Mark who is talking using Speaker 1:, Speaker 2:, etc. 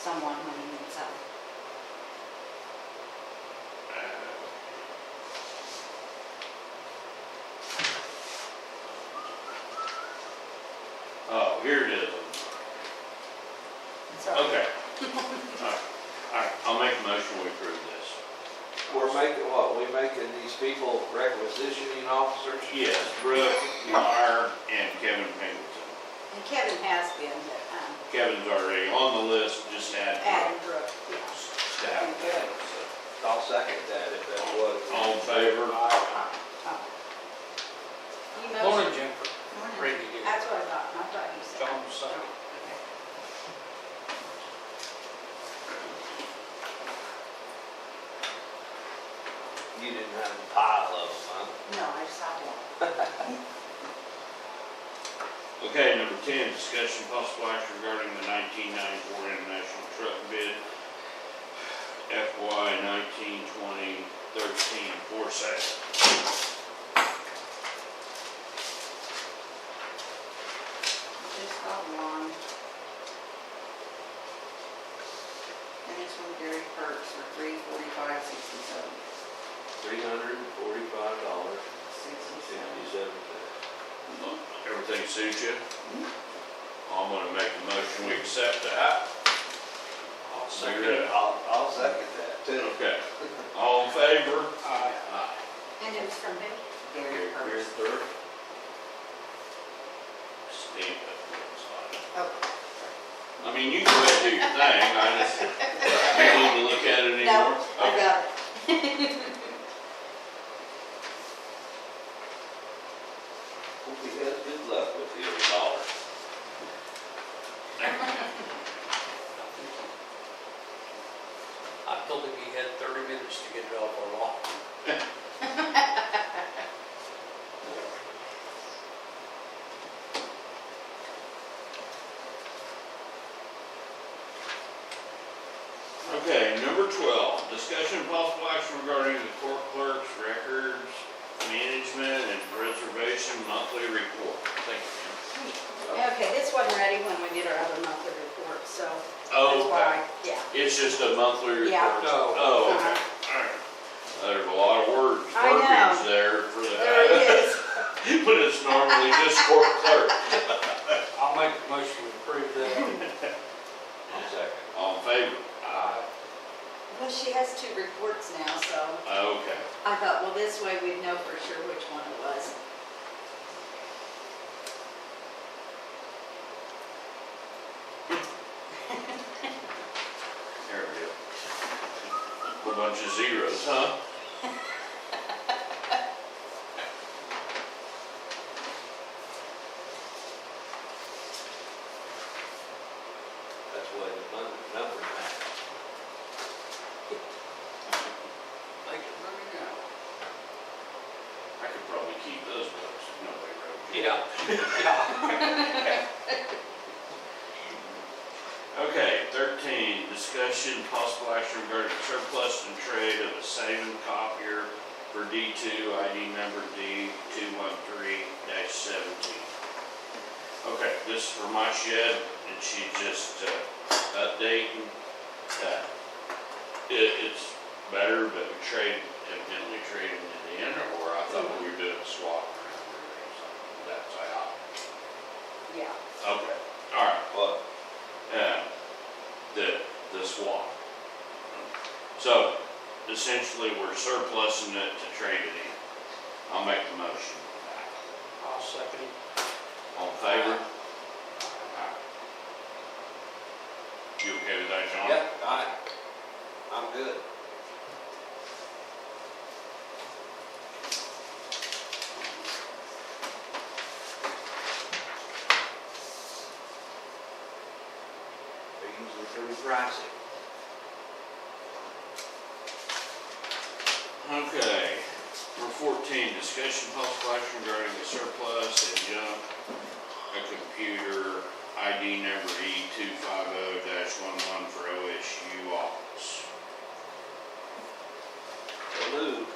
Speaker 1: someone when he moves out.
Speaker 2: Oh, here it is.
Speaker 1: So,
Speaker 2: Okay. Alright, alright, I'll make a motion we approve this.
Speaker 3: We're making what? We making these people requisitioning officers?
Speaker 2: Yes, Brooke, Meyer, and Kevin Pingleton.
Speaker 1: And Kevin has been, but, um,
Speaker 2: Kevin's already on the list, just add
Speaker 1: Adam
Speaker 2: Brooke
Speaker 1: Brooke, yeah.
Speaker 2: to have it.
Speaker 3: I'll second that if that was.
Speaker 2: All in favor?
Speaker 1: oh. You
Speaker 4: Morning,
Speaker 1: motioned.
Speaker 4: Jennifer.
Speaker 1: Morning.
Speaker 4: Ready to get
Speaker 1: That's what I thought, I thought you said.
Speaker 4: John signed.
Speaker 3: You didn't have a pile of them, huh?
Speaker 1: No, I just saw one.
Speaker 2: Okay, number ten, discussion possible action regarding the nineteen ninety-four international truck bid. FY nineteen twenty thirteen for sale.
Speaker 1: Just saw one. And it's from Gary Perks for three forty-five sixty-seven,
Speaker 3: Three hundred and forty-five dollars,
Speaker 1: sixty-seven.
Speaker 3: sixty-seven cents.
Speaker 2: Everything suits you? I'm gonna make a motion, we accept that.
Speaker 3: I'll
Speaker 2: second it.
Speaker 3: I'll, I'll second that too.
Speaker 2: Okay, all in favor?
Speaker 4: Aye.
Speaker 2: Aye.
Speaker 1: And it was from who? Gary
Speaker 3: Here, here,
Speaker 1: Perks.
Speaker 3: third.
Speaker 2: Stand up.
Speaker 1: Oh,
Speaker 2: I mean, you go ahead and do your thing, I just, you need to look at it anymore?
Speaker 1: no, I got it.
Speaker 3: Hope you have good luck with the other dollar.
Speaker 4: I told him he had thirty minutes to get it off our lot.
Speaker 2: Okay, number twelve, discussion of possible action regarding the court clerk's records, management and preservation monthly report. Thank you.
Speaker 1: Okay, this wasn't ready when we did our other monthly report, so
Speaker 2: ma'am.
Speaker 1: that's
Speaker 2: Oh,
Speaker 1: why,
Speaker 2: okay.
Speaker 1: yeah.
Speaker 2: it's just a monthly report?
Speaker 1: Yeah.
Speaker 4: No.
Speaker 2: Oh, okay,
Speaker 1: Uh-huh.
Speaker 2: alright. There's a lot of words,
Speaker 1: I know.
Speaker 2: verbiage there for
Speaker 1: There it
Speaker 2: that.
Speaker 1: is.
Speaker 2: But it's normally just court clerk.
Speaker 4: I'll make a motion to approve that.
Speaker 3: I'll second.
Speaker 2: All in favor?
Speaker 4: Aye.
Speaker 1: Well, she has two reports now, so
Speaker 2: Okay.
Speaker 1: I thought, well, this way we'd know for sure which one it was.
Speaker 2: There we go. Whole bunch of zeros, huh?
Speaker 3: That's why the mon- number matters.
Speaker 4: Make it money now.
Speaker 2: I could probably keep those books. No, they wrote.
Speaker 4: Yeah. Yeah.
Speaker 2: Okay, thirteen, discussion, possible action regarding surplus and trade of a Saban copier for D two, ID number D two one three seventeen. Okay, this is for my shed, and she just, uh, updating, uh, it, it's better, but we trade, evidently trading it in, or I thought we were doing a swap around there or something, that's how,
Speaker 1: Yeah.
Speaker 2: I- okay, all right.
Speaker 3: What?
Speaker 2: uh, the, the swap. So essentially, we're surplusing it to trade it in. I'll make the motion.
Speaker 4: I'll second it.
Speaker 2: All in favor? You okay with that, John?
Speaker 3: Yep, I, I'm good. They're usually pretty pricey.
Speaker 2: Okay. Number fourteen, discussion possible action regarding the surplus and junk, a computer, ID number E two five oh one one for OSU office.
Speaker 3: So Luke,